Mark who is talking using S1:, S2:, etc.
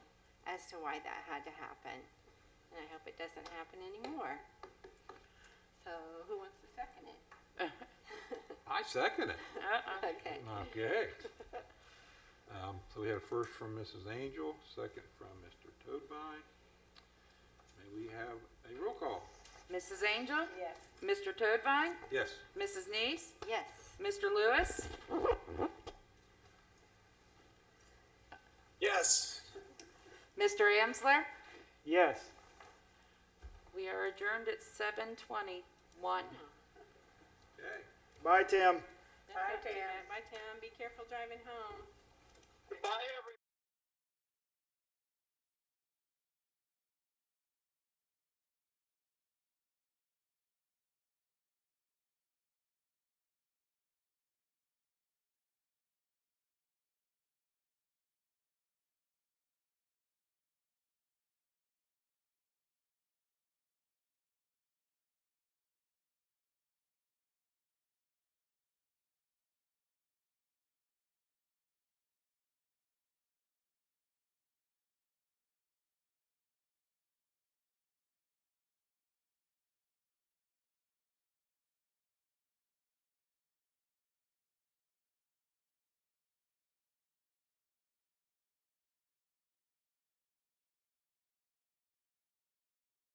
S1: as to why that had to happen. And I hope it doesn't happen anymore. So who wants to second it?
S2: I second it.
S3: Uh-uh.
S1: Okay.
S2: Okay. Um, So we had a first from Mrs. Angel, second from Mr. Toadby. May we have a roll call?
S3: Mrs. Angel?
S1: Yes.
S3: Mr. Toadvine?
S2: Yes.
S3: Mrs. Neese?
S1: Yes.
S3: Mr. Lewis?
S4: Yes.
S3: Mr. Amsler?
S5: Yes.
S3: We are adjourned at seven twenty-one.
S2: Okay.
S5: Bye, Tim.
S1: Bye, Tim. Bye, Tim. Be careful driving home.
S4: Bye, everybody.